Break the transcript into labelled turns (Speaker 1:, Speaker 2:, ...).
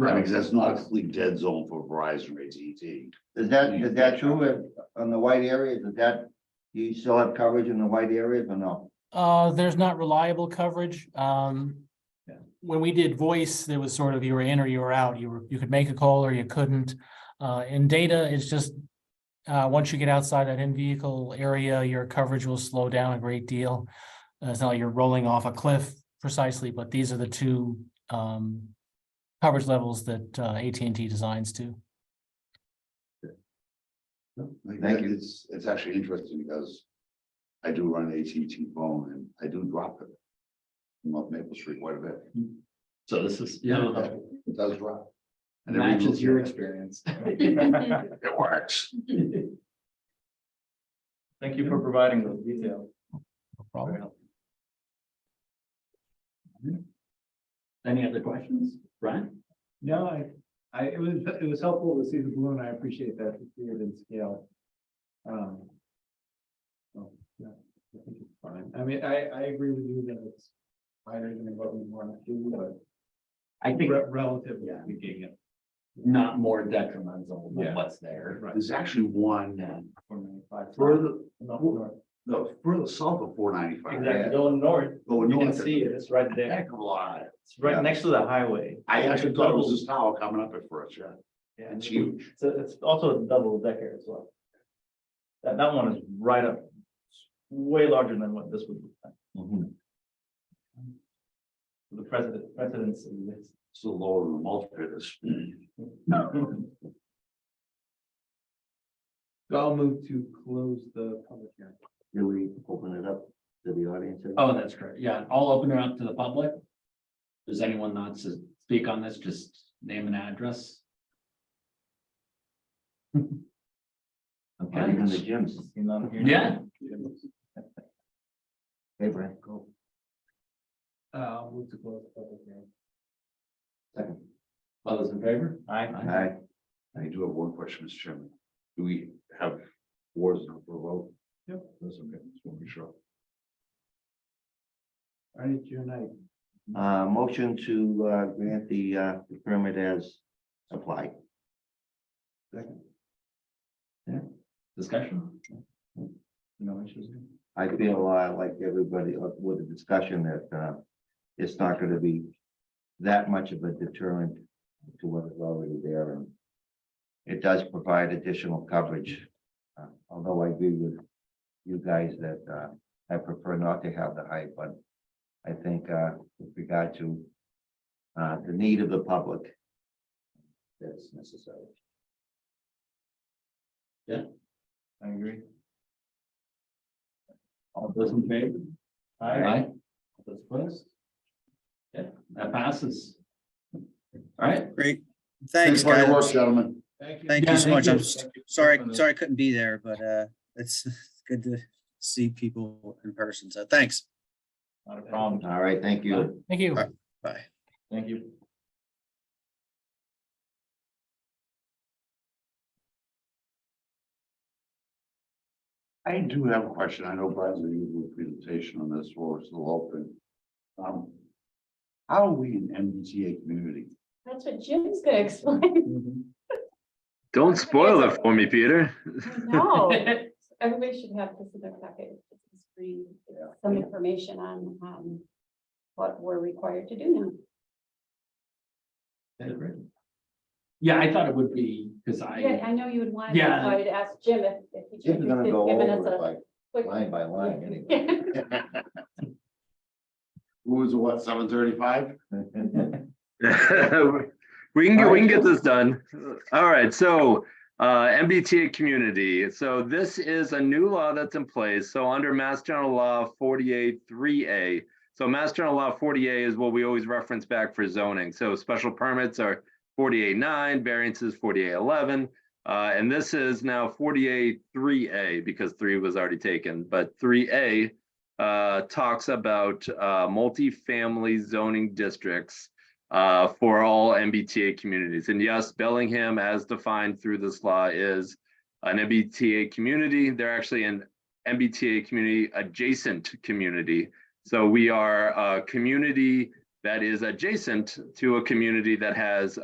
Speaker 1: I mean, 'cause that's not a complete dead zone for Verizon E or AT&T.
Speaker 2: Is that, is that true in- on the white areas? Is that, you still have coverage in the white areas or no?
Speaker 3: Uh, there's not reliable coverage, um. When we did voice, there was sort of you were in or you were out, you were, you could make a call or you couldn't. Uh, in data, it's just. Uh, once you get outside that in-vehicle area, your coverage will slow down a great deal. Uh, It's not like you're rolling off a cliff precisely, but these are the two, um. Coverage levels that uh, AT&T designs to.
Speaker 1: Like,
Speaker 2: Thank you.
Speaker 1: It's, it's actually interesting because I do run an AT&T phone and I do drop it. I'm up Maple Street quite a bit.
Speaker 4: So this is, yeah,
Speaker 1: It does drop. And it reaches
Speaker 4: matches your
Speaker 1: it.
Speaker 4: experience.
Speaker 1: It works.
Speaker 4: Thank you for providing those details.
Speaker 3: No problem.
Speaker 4: Any other questions, Brian?
Speaker 5: No, I, I, it was, it was helpful to see the balloon. I appreciate that, it's weird in scale. Um. So, yeah, I think it's fine. I mean, I, I agree with you that it's higher than what we want to do, but
Speaker 4: I think
Speaker 5: re- relatively
Speaker 4: Yeah.
Speaker 5: speaking, it
Speaker 4: not more detrimental
Speaker 5: Yeah.
Speaker 4: than what's there.
Speaker 5: right.
Speaker 1: There's actually one
Speaker 5: four ninety-five.
Speaker 1: further,
Speaker 5: Enough north.
Speaker 1: no, further south of four ninety-five.
Speaker 4: Exactly, going north,
Speaker 1: Going
Speaker 4: you can
Speaker 1: north.
Speaker 4: see it, it's right there,
Speaker 1: Heck of a lot.
Speaker 4: it's
Speaker 1: Yeah.
Speaker 4: right next to the highway.
Speaker 1: I actually thought it was this tower coming up at first, yeah.
Speaker 4: Yeah,
Speaker 1: It's huge.
Speaker 4: So it's also a double decker as well. That, that one is right up, way larger than what this would be. Mm-hmm. The president, precedence exists.
Speaker 1: It's the lower than the multiplators.
Speaker 5: So I'll move to close the public hearing.
Speaker 2: Do we open it up to the audience?
Speaker 4: Oh, that's correct. Yeah, I'll open it up to the public. Does anyone not to speak on this? Just name and address.
Speaker 2: Not even the gyms.
Speaker 4: Yeah,
Speaker 2: Hey, Brent, go.
Speaker 5: Uh, I'll move to close the public hearing.
Speaker 2: Second.
Speaker 4: all those in favor?
Speaker 2: All
Speaker 4: Aye.
Speaker 2: right.
Speaker 1: I do have one question, Mr. Chairman. Do we have wars now for a vote?
Speaker 5: Yep.
Speaker 1: That's okay, just want to be sure.
Speaker 5: All right, June ninth.
Speaker 2: Uh, motion to, uh, grant the, uh, permit as applied.
Speaker 4: Discussion? No issues?
Speaker 2: I feel, uh, like everybody uh, with the discussion that, uh, it's not gonna be that much of a deterrent to what is already there. and It does provide additional coverage, uh, although I agree with you guys that, uh, I prefer not to have the height, but I think, uh, with regard to uh, the need of the public, that's necessary.
Speaker 4: I agree. All those in favor? Aye. All Those opposed? Yeah, that passes. All right,
Speaker 6: Great. Thanks,
Speaker 1: for your
Speaker 6: guys.
Speaker 1: work, Gentlemen.
Speaker 5: Thank you.
Speaker 6: Thank
Speaker 4: Yeah,
Speaker 6: you so
Speaker 4: thank
Speaker 6: much.
Speaker 4: you.
Speaker 6: I'm s-
Speaker 5: Thank you.
Speaker 6: sorry, sorry I couldn't be there, but uh, it's good to see people in person. So thanks.
Speaker 4: not a problem.
Speaker 2: All right, thank you.
Speaker 3: Thank you.
Speaker 6: Bye.
Speaker 4: Thank you.
Speaker 1: I do have a question. I know Brad's going to do a presentation on this, or it's still open. Um, how are we an MBTA community?
Speaker 7: That's what Jim's gonna explain.
Speaker 8: Don't spoil it for me, Peter.
Speaker 7: No, everybody should have this in their packet. It's just free, it's Some information on, um, what we're required to do now.
Speaker 4: Yeah, I thought it would be, because I,
Speaker 7: Yeah, I know you would want,
Speaker 4: Yeah.
Speaker 7: that's why I'd ask Jim if, if he's
Speaker 2: Jim's gonna
Speaker 7: interested,
Speaker 2: go
Speaker 7: giving us
Speaker 2: over
Speaker 7: a
Speaker 2: it like
Speaker 7: quick.
Speaker 2: line by line anyway.
Speaker 1: Who was it, what, seven thirty-five?
Speaker 8: We can, get- we can get this done. All right, so uh, MBTA community. So this is a new law that's in place. So under Mass General Law 48 3A. So Mass General Law 48 is what we always reference back for zoning. So special permits are 48 9, variances 48 11. Uh, and this is now 48 3A because 3 was already taken, but 3A uh, talks about uh, multifamily zoning districts uh, for all MBTA communities. And yes, Bellingham, as defined through this law, is an MBTA community. They're actually an MBTA community adjacent community. So we are a community that is adjacent to a community that has